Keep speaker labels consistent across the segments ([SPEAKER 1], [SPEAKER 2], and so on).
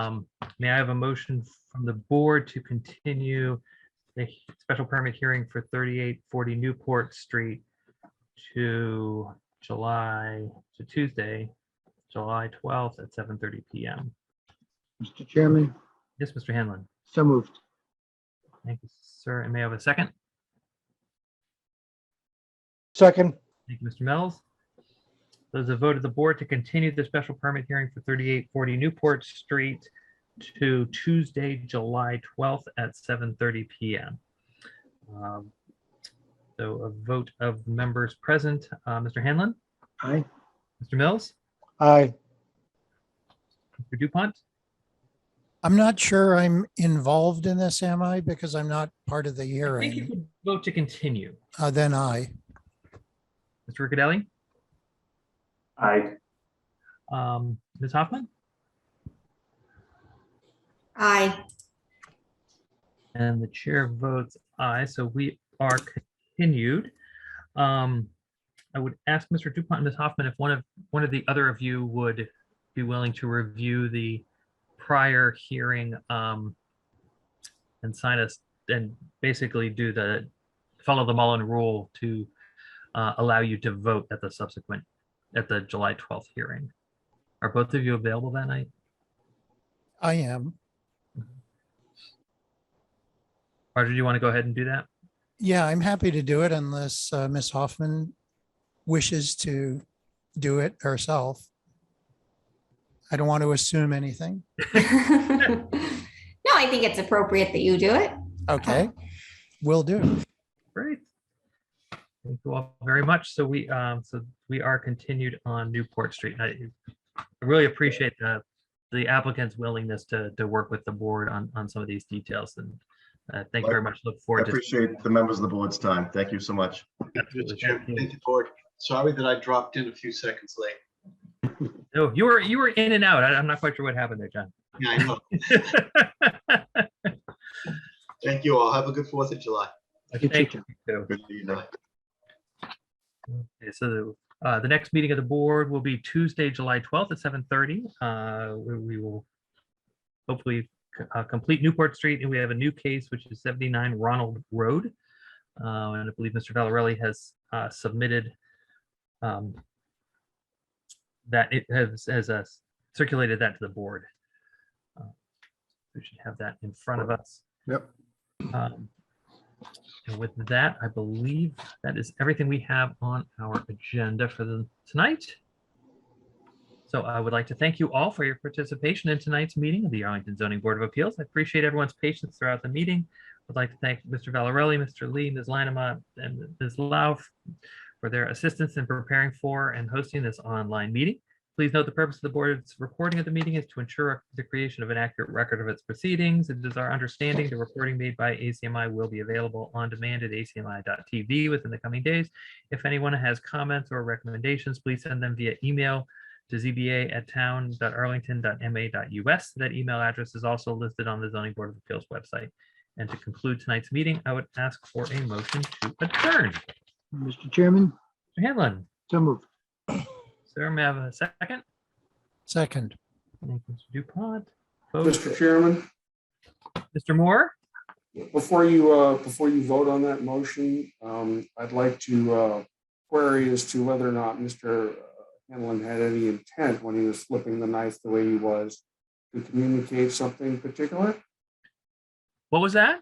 [SPEAKER 1] Um, May I have a motion from the board to continue the he- special permit hearing for 3840 Newport Street to July, to Tuesday, July 12th at 7:30 PM?
[SPEAKER 2] Mr. Chairman,
[SPEAKER 1] Yes, Mr. Hanlon.
[SPEAKER 2] so moved.
[SPEAKER 1] Thank you, sir. And may I have a second?
[SPEAKER 3] Second,
[SPEAKER 1] Thank you, Mr. Mills. Those a vote of the board to continue the special permit hearing for 3840 Newport Street to Tuesday, July 12th at 7:30 PM. Um, So a vote of members present, uh, Mr. Hanlon,
[SPEAKER 2] Aye.
[SPEAKER 1] Mr. Mills,
[SPEAKER 3] aye.
[SPEAKER 1] Mr. Dupont,
[SPEAKER 4] I'm not sure I'm involved in this, am I? Because I'm not part of the
[SPEAKER 1] I think you
[SPEAKER 4] hearing.
[SPEAKER 1] could vote to continue.
[SPEAKER 4] Uh, Then I,
[SPEAKER 1] Mr. Riccadelli,
[SPEAKER 5] Aye.
[SPEAKER 1] um, Ms. Hoffman,
[SPEAKER 6] Aye.
[SPEAKER 1] and the chair votes aye, so we are continued. Um, I would ask Mr. Dupont and Ms. Hoffman if one of, one of the other of you would be willing to review the prior hearing um, and sign us, and basically do the, follow the Mullen rule to uh, allow you to vote at the subsequent, at the July 12th hearing. Are both of you available that night?
[SPEAKER 4] I am.
[SPEAKER 1] Roger, do you want to go ahead and do that?
[SPEAKER 4] Yeah, I'm happy to do it unless uh, Ms. Hoffman wishes to do it herself. I don't want to assume anything.
[SPEAKER 6] No, I think it's appropriate that you do it.
[SPEAKER 4] Okay,
[SPEAKER 1] Uh-huh.
[SPEAKER 4] will do.
[SPEAKER 1] Great. Thank you all very much. So we, um, so we are continued on Newport Street. I I really appreciate the, the applicant's willingness to, to work with the board on, on some of these details and uh, thank you very much. Look
[SPEAKER 5] I
[SPEAKER 1] forward to.
[SPEAKER 5] appreciate the members of the board's time. Thank you so much.
[SPEAKER 1] Absolutely.
[SPEAKER 7] Mr. Chairman,
[SPEAKER 1] Thank you.
[SPEAKER 7] thank you, board. Sorry that I dropped in a few seconds late.
[SPEAKER 1] No, you were, you were in and out. I- I'm not quite sure what happened there, John.
[SPEAKER 7] Yeah, I know. Thank you all. Have a good Fourth of July.
[SPEAKER 1] Thank you. too.
[SPEAKER 5] Good evening.
[SPEAKER 1] Okay, so uh, the next meeting of the board will be Tuesday, July 12th at 7:30. Uh, We we will hopefully c- uh, complete Newport Street, and we have a new case, which is 79 Ronald Road. Uh, And I believe Mr. Valarelli has uh, submitted um, that it has, has uh, circulated that to the board. Uh, We should have that in front of us.
[SPEAKER 5] Yep.
[SPEAKER 1] Um, And with that, I believe that is everything we have on our agenda for the tonight. So I would like to thank you all for your participation in tonight's meeting of the Arlington Zoning Board of Appeals. I appreciate everyone's patience throughout the meeting. I'd like to thank Mr. Valarelli, Mr. Lee, Ms. Linema, and Ms. Lau for their assistance in preparing for and hosting this online meeting. Please note the purpose of the board's recording of the meeting is to ensure the creation of an accurate record of its proceedings. It is our understanding the recording made by ACMI will be available on demand at acmi.tv within the coming days. If anyone has comments or recommendations, please send them via email to zba@town.arlington.ma.us. That email address is also listed on the zoning board of appeals website. And to conclude tonight's meeting, I would ask for a motion to adjourn. Mr.
[SPEAKER 2] Mr. Chairman,
[SPEAKER 1] Hanlon,
[SPEAKER 2] so moved.
[SPEAKER 1] sir, may I have a second?
[SPEAKER 4] Second,
[SPEAKER 1] Thank you, Mr. Dupont. Vote.
[SPEAKER 8] Mr. Chairman,
[SPEAKER 1] Mr. Moore?
[SPEAKER 8] before you, uh, before you vote on that motion, um, I'd like to uh, query as to whether or not Mr. Hanlon had any intent when he was flipping the knife the way he was to communicate something particular.
[SPEAKER 1] What was that?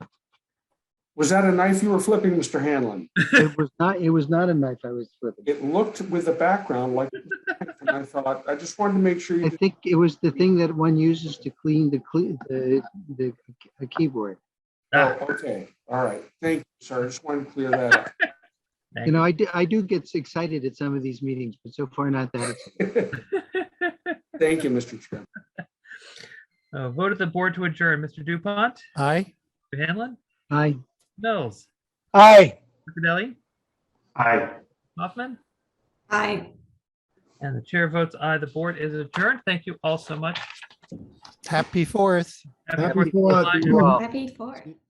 [SPEAKER 8] Was that a knife you were flipping, Mr. Hanlon?
[SPEAKER 2] It was not, it was not a knife I was flipping.
[SPEAKER 8] It looked with the background like, and I thought, I just wanted to make sure
[SPEAKER 2] I
[SPEAKER 8] you, did-
[SPEAKER 2] think it was the thing that one uses to clean the, cle- the, the a keyboard.
[SPEAKER 8] oh, okay, all right, thank you, sir. I just wanted to clear that up.
[SPEAKER 2] You know, I do, I do get excited at some of these meetings, but so far not that. excited.
[SPEAKER 8] Thank you, Mr. Chairman.
[SPEAKER 1] Uh, Vote of the board to adjourn. Mr. Dupont,
[SPEAKER 4] aye.
[SPEAKER 1] Mr. Hanlon,
[SPEAKER 2] Aye.
[SPEAKER 1] Mills,
[SPEAKER 3] Aye.
[SPEAKER 1] Riccadelli,
[SPEAKER 5] Aye.
[SPEAKER 1] Hoffman,
[SPEAKER 6] Aye.
[SPEAKER 1] and the chair votes aye. The board is adjourned. Thank you all so much.
[SPEAKER 4] Happy Fourth.
[SPEAKER 1] Happy
[SPEAKER 2] Happy
[SPEAKER 1] Fourth of
[SPEAKER 2] Fourth,
[SPEAKER 1] July.
[SPEAKER 2] you all.
[SPEAKER 6] Happy for it.